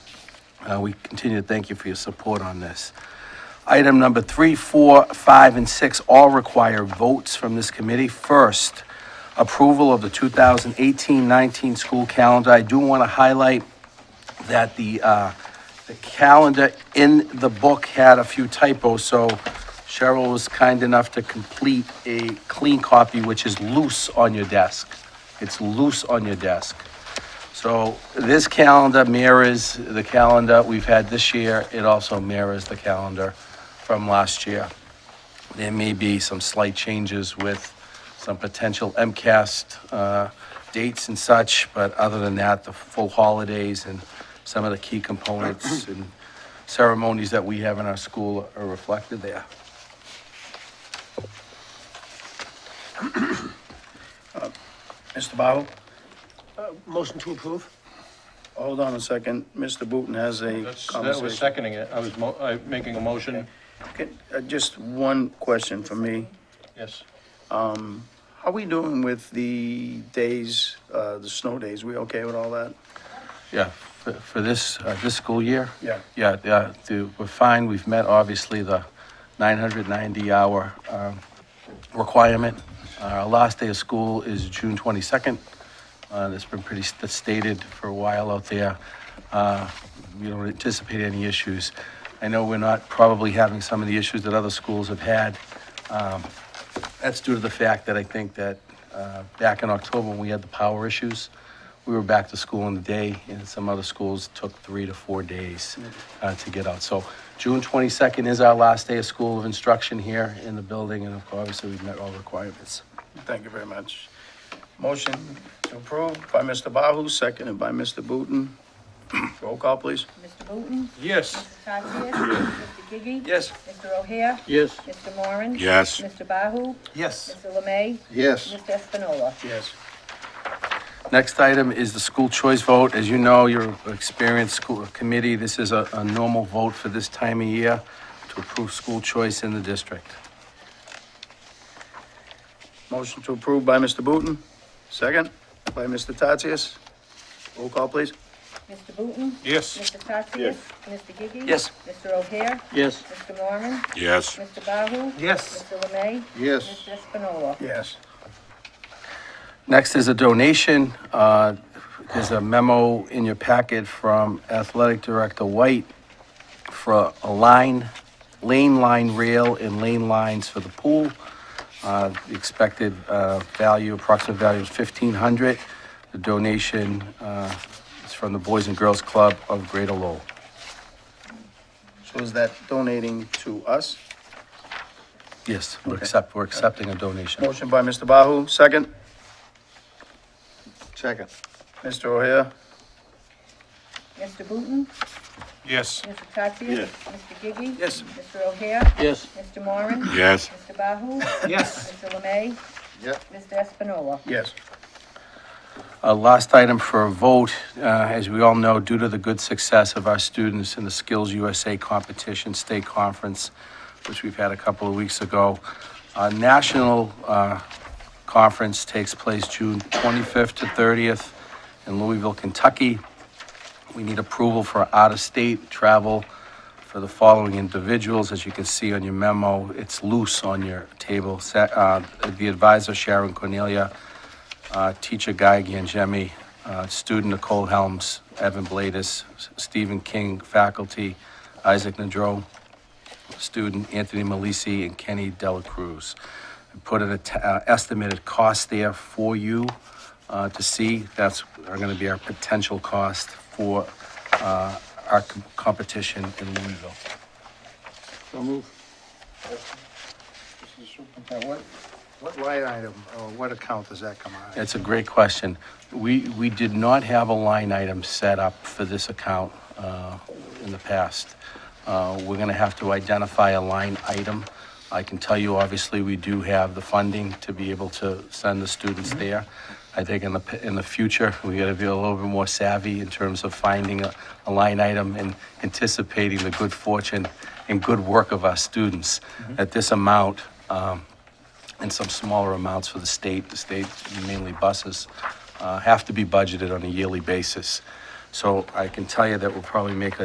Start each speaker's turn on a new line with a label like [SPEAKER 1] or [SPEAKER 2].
[SPEAKER 1] Uh, We continue to thank you for your support on this. Item number three, four, five, and six all require votes from this committee. First, approval of the 2018-19 school calendar. I do want to highlight that the, uh, the calendar in the book had a few typos, so Cheryl was kind enough to complete a clean copy, which is loose on your desk. It's loose on your desk. So this calendar mirrors the calendar we've had this year. It also mirrors the calendar from last year. There may be some slight changes with some potential MCAST uh, dates and such, but other than that, the full holidays and some of the key components and ceremonies that we have in our school are reflected there.
[SPEAKER 2] Mr. Bottle? Uh,
[SPEAKER 3] Motion to approve?
[SPEAKER 2] Hold on a second. Mr. Booton has a
[SPEAKER 4] That's, that was
[SPEAKER 2] conversation.
[SPEAKER 4] seconding it. I was mo, I, making a motion,
[SPEAKER 2] Can- uh, Just one question for me.
[SPEAKER 4] yes.
[SPEAKER 2] How are we doing with the days, uh, the snow days? We okay with all that?
[SPEAKER 1] Yeah, for for this, uh, this school year?
[SPEAKER 2] Yeah.
[SPEAKER 1] Yeah, yeah, the- we're fine, we've met obviously the 990-hour um, requirement. Uh, Our last day of school is June 22nd. Uh, That's been pretty st- stated for a while out there. Uh, We don't anticipate any issues. I know we're not probably having some of the issues that other schools have had. Um, That's due to the fact that I think that uh, back in October, when we had the power issues, we were back to school in the day, and some other schools took three to four days uh, to get out. So June 22nd is our last day of school of instruction here in the building, and of course, obviously, we've met all requirements.
[SPEAKER 2] Thank you very much. Motion to approve by Mr. Bahu, seconded by Mr. Booton. Roll call, please.
[SPEAKER 5] Mr. Booton?
[SPEAKER 4] Yes.
[SPEAKER 5] Mr. Tatsias? Mr. Gigi?
[SPEAKER 2] Yes.
[SPEAKER 5] Mr. O'Hare?
[SPEAKER 4] Yes.
[SPEAKER 5] Mr. Moran?
[SPEAKER 3] Yes.
[SPEAKER 5] Mr. Bahu?
[SPEAKER 1] Yes.
[SPEAKER 5] Mr. Lemay?
[SPEAKER 3] Yes.
[SPEAKER 5] Mr. Espinola?
[SPEAKER 2] Yes.
[SPEAKER 1] Next item is the school choice vote. As you know, you're an experienced school uh, committee. This is a, a normal vote for this time of year to approve school choice in the district.
[SPEAKER 2] Motion to approve by Mr. Booton, second by Mr. Tatsias. Roll call, please.
[SPEAKER 5] Mr. Booton?
[SPEAKER 4] Yes.
[SPEAKER 5] Mr. Tatsias? Mr. Gigi?
[SPEAKER 2] Yes.
[SPEAKER 5] Mr. O'Hare?
[SPEAKER 4] Yes.
[SPEAKER 5] Mr. Moran?
[SPEAKER 3] Yes.
[SPEAKER 5] Mr. Bahu?
[SPEAKER 4] Yes.
[SPEAKER 5] Mr. Lemay?
[SPEAKER 3] Yes.
[SPEAKER 5] Mr. Espinola?
[SPEAKER 2] Yes.
[SPEAKER 1] Next is a donation. Uh, There's a memo in your packet from Athletic Director White for a line, lane line rail and lane lines for the pool. Uh, the Expected uh, value, approximate value is 1,500. The donation uh, is from the Boys and Girls Club of Greater Lowell.
[SPEAKER 2] So is that donating to us?
[SPEAKER 1] Yes, we're accept, we're accepting a donation.
[SPEAKER 2] Motion by Mr. Bahu, second.
[SPEAKER 3] Second.
[SPEAKER 2] Mr. O'Hare?
[SPEAKER 5] Mr. Booton?
[SPEAKER 4] Yes.
[SPEAKER 5] Mr. Tatsias?
[SPEAKER 3] Yes.
[SPEAKER 5] Mr. Gigi?
[SPEAKER 2] Yes.
[SPEAKER 5] Mr. O'Hare?
[SPEAKER 4] Yes.
[SPEAKER 5] Mr. Moran?
[SPEAKER 3] Yes.
[SPEAKER 5] Mr. Bahu?
[SPEAKER 4] Yes.
[SPEAKER 5] Mr. Lemay?
[SPEAKER 3] Yep.
[SPEAKER 5] Mr. Espinola?
[SPEAKER 2] Yes.
[SPEAKER 1] Uh, Last item for a vote, uh, as we all know, due to the good success of our students in the Skills USA competition state conference, which we've had a couple of weeks ago, our national uh, conference takes place June 25th to 30th in Louisville, Kentucky. We need approval for out-of-state travel for the following individuals. As you can see on your memo, it's loose on your table. Sa- uh, The advisor Sharon Cornelia, uh, teacher Guy Gangemi, uh, student Nicole Helms, Evan Bladis, S- Stephen King, faculty Isaac Nadro, student Anthony Malisi, and Kenny Dela Cruz. I Put an at- uh, estimated cost there for you uh, to see. That's are going to be our potential cost for uh, our com- competition in Louisville.
[SPEAKER 3] So move. What, what line item, or what account does that come out? of?
[SPEAKER 1] That's a great question. We, we did not have a line item set up for this account uh, in the past. Uh, We're going to have to identify a line item. I can tell you, obviously, we do have the funding to be able to send the students there. I think in the, p- in the future, we got to be a little bit more savvy in terms of finding a, a line item and anticipating the good fortune and good work of our students. At this amount, um, and some smaller amounts for the state. The state, mainly buses, uh, have to be budgeted on a yearly basis. So I can tell you that we'll probably make a